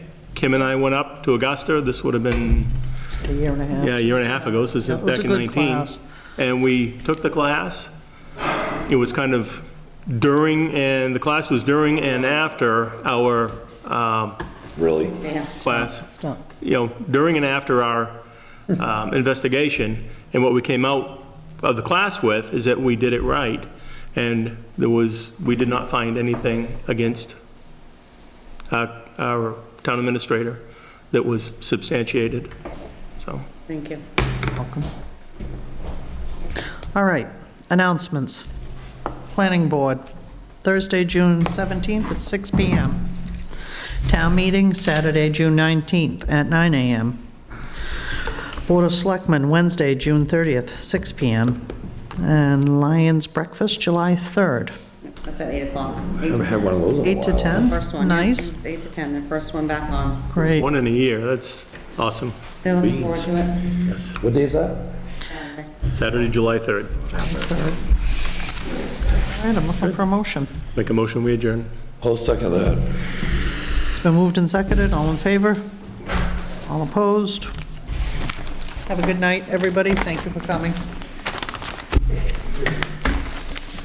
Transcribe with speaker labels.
Speaker 1: Kim and I went up to Augusta, this would have been,
Speaker 2: a year and a half.
Speaker 1: yeah, a year and a half ago, so this is
Speaker 2: It
Speaker 1: back
Speaker 2: was a
Speaker 1: in
Speaker 2: good
Speaker 1: 19.
Speaker 2: class.
Speaker 1: And we took the class. It was kind of during, and the class was during and after our um,
Speaker 3: really.
Speaker 4: Yeah.
Speaker 1: class.
Speaker 2: It's not-
Speaker 1: you know, during and after our um, investigation, and what we came out of the class with is that we did it right, and there was, we did not find anything against our- our town administrator that was substantiated, so.
Speaker 4: Thank you.
Speaker 2: Welcome. All right, announcements. Planning Board, Thursday, June 17th at 6 PM. Town meeting, Saturday, June 19th at 9 AM. Board of Selectmen, Wednesday, June 30th, 6 PM. And Lions Breakfast, July 3rd,
Speaker 4: That's at 8 o'clock.
Speaker 3: Haven't had one of those in a
Speaker 2: 8 to
Speaker 3: while.
Speaker 2: 10.
Speaker 4: First one. yeah,
Speaker 2: Nice,
Speaker 4: it's 8 to 10, their first one back on.
Speaker 2: great.
Speaker 1: One in a year, that's awesome.
Speaker 4: They're looking forward to it.
Speaker 3: What day is that?
Speaker 1: Saturday, July 3rd.
Speaker 2: All right, I'm looking for a motion.
Speaker 1: Make a motion, we adjourn.
Speaker 3: Hold second that.
Speaker 2: It's been moved and seconded, all in favor? All opposed? Have a good night, everybody, thank you for coming.